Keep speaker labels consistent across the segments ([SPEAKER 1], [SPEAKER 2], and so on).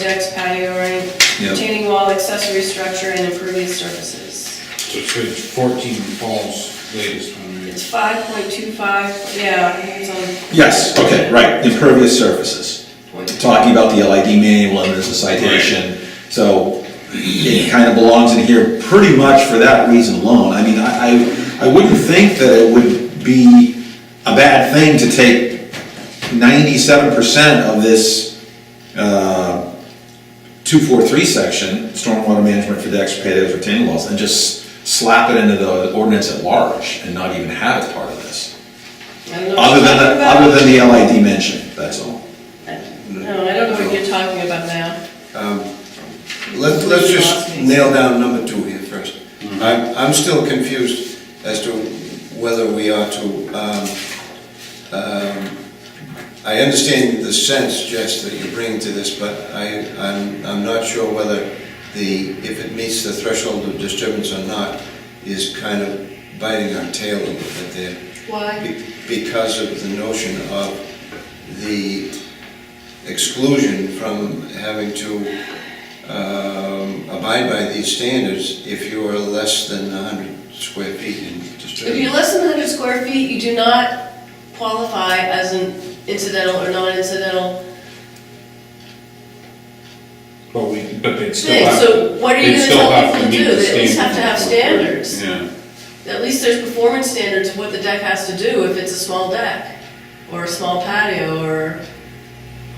[SPEAKER 1] projects, patio, right?
[SPEAKER 2] Yep.
[SPEAKER 1] Retaining wall, accessory structure, and impervious surfaces.
[SPEAKER 3] So it's good, it's fourteen falls latest one, right?
[SPEAKER 1] It's five point two five, yeah, I think it's on
[SPEAKER 2] Yes, okay, right, impervious surfaces. Talking about the LID manual and there's a citation, so it kind of belongs in here pretty much for that reason alone. I mean, I, I, I wouldn't think that it would be a bad thing to take ninety-seven percent of this, uh, two-four-three section, stormwater management for decks, patios, retaining walls, and just slap it into the ordinance at large and not even have it part of this.
[SPEAKER 1] I don't know what
[SPEAKER 2] Other
[SPEAKER 1] you're
[SPEAKER 2] than,
[SPEAKER 1] talking
[SPEAKER 2] the-
[SPEAKER 1] about.
[SPEAKER 2] other than the LID mention, that's all.
[SPEAKER 1] No, I don't know what you're talking about now.
[SPEAKER 4] Let's, let's just nail down number two here first. I'm, I'm still confused as to whether we are to, um, um, I understand the sense, Jess, that you bring to this, but I, I'm, I'm not sure whether the, if it meets the threshold of disturbance or not, is kind of biting our tail a little bit there.
[SPEAKER 1] Why?
[SPEAKER 4] Be- because of the notion of the exclusion from having to um, abide by these standards if you are less than 100 square feet in
[SPEAKER 1] If you're
[SPEAKER 4] disturbance.
[SPEAKER 1] less than 100 square feet, you do not qualify as an incidental or non-incidental
[SPEAKER 3] But we, but they'd still
[SPEAKER 1] thing.
[SPEAKER 3] have.
[SPEAKER 1] So what are you
[SPEAKER 3] they'd
[SPEAKER 1] gonna
[SPEAKER 3] still
[SPEAKER 1] tell
[SPEAKER 3] have
[SPEAKER 1] people to
[SPEAKER 3] meet
[SPEAKER 1] do?
[SPEAKER 3] the
[SPEAKER 1] They at least have to have
[SPEAKER 3] standards.
[SPEAKER 1] standards.
[SPEAKER 3] Yeah,
[SPEAKER 1] At least there's performance standards of what the deck has to do if it's a small deck, or a small patio, or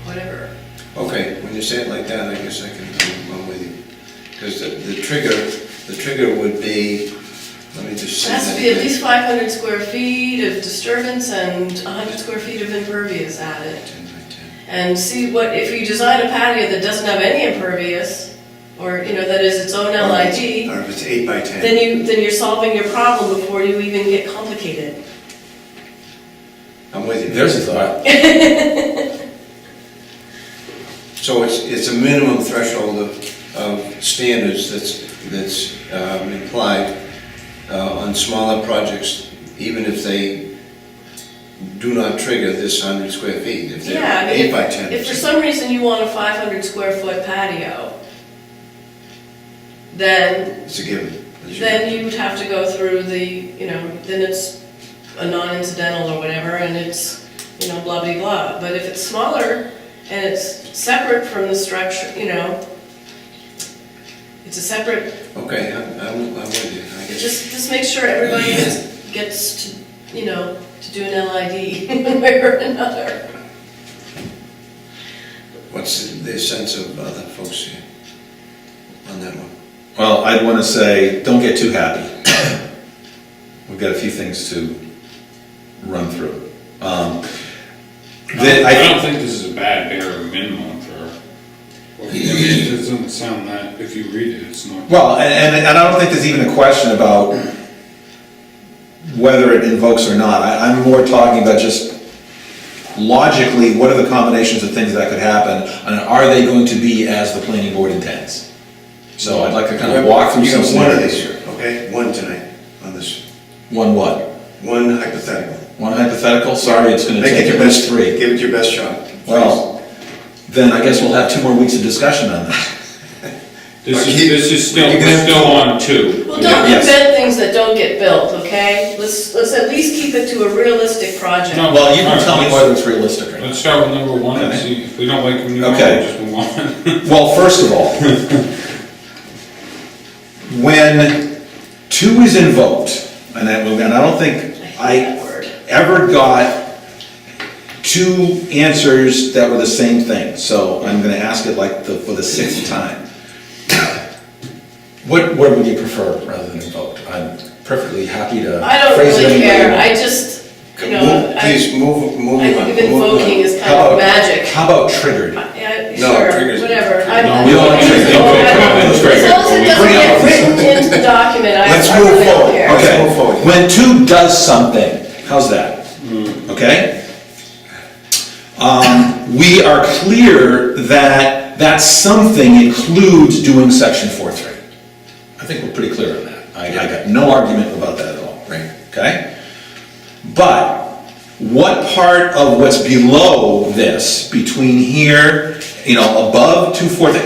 [SPEAKER 1] whatever.
[SPEAKER 4] Okay, when you say it like that, I guess I can go along with you. Because the the trigger, the trigger would be, let me just
[SPEAKER 1] It
[SPEAKER 4] say that.
[SPEAKER 1] has to be at
[SPEAKER 4] again.
[SPEAKER 1] least 500 square feet of disturbance and 100 square feet of impervious added.
[SPEAKER 4] 10 by 10.
[SPEAKER 1] And see what, if you design a patio that doesn't have any impervious, or, you know, that is its own LIG,
[SPEAKER 4] Or if it's eight by 10.
[SPEAKER 1] then you, then you're solving your problem before you even get complicated.
[SPEAKER 4] I'm with you.
[SPEAKER 2] There's a thought.
[SPEAKER 4] So it's, it's a minimum threshold of, of standards that's, that's um, implied uh, on smaller projects, even if they do not trigger this hundred square feet, if
[SPEAKER 1] Yeah, I
[SPEAKER 4] they're
[SPEAKER 1] mean,
[SPEAKER 4] eight by
[SPEAKER 1] if,
[SPEAKER 4] ten.
[SPEAKER 1] if for some reason you want a 500 square foot patio, then,
[SPEAKER 4] It's a given. It's a
[SPEAKER 1] then
[SPEAKER 4] given.
[SPEAKER 1] you would have to go through the, you know, then it's a non-incidental or whatever, and it's, you know, blah blah blah. But if it's smaller and it's separate from the structure, you know, it's a separate
[SPEAKER 4] Okay, I'm, I'm I'm with you, I
[SPEAKER 1] It
[SPEAKER 4] guess.
[SPEAKER 1] Just, just make sure everybody gets- gets to, you know, to do an LID one way or another.
[SPEAKER 4] What's the- the sense of other folks here on that one?
[SPEAKER 2] Well, I'd want to say, don't get too happy. We've got a few things to run through. Um, Then
[SPEAKER 3] I
[SPEAKER 2] I,
[SPEAKER 3] don't think this is a bad bare minimum for, I mean, it doesn't sound that, if you read it, it's not.
[SPEAKER 2] well, and- and, and I don't think there's even a question about whether it invokes or not. I, I'm more talking about just logically, what are the combinations of things that could happen? And are they going to be as the planning board intends? So I'd like to kind of walk through some
[SPEAKER 4] You got one of these
[SPEAKER 2] scenarios.
[SPEAKER 4] here, okay? One tonight on this,
[SPEAKER 2] One what?
[SPEAKER 4] one hypothetical.
[SPEAKER 2] One hypothetical? Sorry, it's going to
[SPEAKER 4] Make
[SPEAKER 2] take
[SPEAKER 4] it
[SPEAKER 2] at
[SPEAKER 4] your
[SPEAKER 2] least
[SPEAKER 4] best,
[SPEAKER 2] three.
[SPEAKER 4] give it your best shot. please.
[SPEAKER 2] Well, then I guess we'll have two more weeks of discussion on that.
[SPEAKER 3] This is,
[SPEAKER 4] Keep-
[SPEAKER 3] this is still,
[SPEAKER 4] you can
[SPEAKER 3] we're
[SPEAKER 4] have-
[SPEAKER 3] still on two.
[SPEAKER 1] Well, don't
[SPEAKER 2] Yes.
[SPEAKER 1] invent things that don't get built, okay? Let's, let's at least keep it to a realistic project.
[SPEAKER 3] No.
[SPEAKER 2] Well, you can tell me whether it's realistic or not.
[SPEAKER 3] Let's start with number one and see if we don't like them, we'll
[SPEAKER 2] Okay.
[SPEAKER 3] just move on.
[SPEAKER 2] Well, first of all, when two is invoked, and I, and I don't think
[SPEAKER 1] hate
[SPEAKER 2] I
[SPEAKER 1] that word.
[SPEAKER 2] ever got two answers that were the same thing, so I'm gonna ask it like the, for the sixth time. What, what would you prefer rather than invoked? I'm perfectly happy to
[SPEAKER 1] I don't
[SPEAKER 2] phrase it
[SPEAKER 1] really
[SPEAKER 2] any way you
[SPEAKER 1] care,
[SPEAKER 2] want.
[SPEAKER 1] I just, you know,
[SPEAKER 4] Move-
[SPEAKER 1] I,
[SPEAKER 4] Please, move, move
[SPEAKER 1] I
[SPEAKER 4] on.
[SPEAKER 1] think
[SPEAKER 4] move on.
[SPEAKER 1] invoking is kind
[SPEAKER 2] How
[SPEAKER 1] of
[SPEAKER 2] about-
[SPEAKER 1] magic.
[SPEAKER 2] How about triggered?
[SPEAKER 1] Yeah,
[SPEAKER 4] No,
[SPEAKER 1] sure,
[SPEAKER 4] triggers-
[SPEAKER 1] whatever.
[SPEAKER 3] No,
[SPEAKER 1] I'm-
[SPEAKER 3] we
[SPEAKER 2] don't like
[SPEAKER 1] As
[SPEAKER 2] triggers.
[SPEAKER 1] long as it doesn't
[SPEAKER 2] Bring
[SPEAKER 1] get
[SPEAKER 2] up-
[SPEAKER 1] written into the document, I
[SPEAKER 4] Let's
[SPEAKER 1] I
[SPEAKER 4] move
[SPEAKER 1] really don't
[SPEAKER 4] forward.
[SPEAKER 1] care.
[SPEAKER 4] Let's
[SPEAKER 2] Okay,
[SPEAKER 4] move forward.
[SPEAKER 2] when two does something, how's that?
[SPEAKER 4] Mm.
[SPEAKER 2] Okay? Um, we are clear that that something includes doing section four three. I think we're pretty clear on that. I, I got no argument about that at all. Right. Okay? But what part of what's below this, between here, you know, above two four three,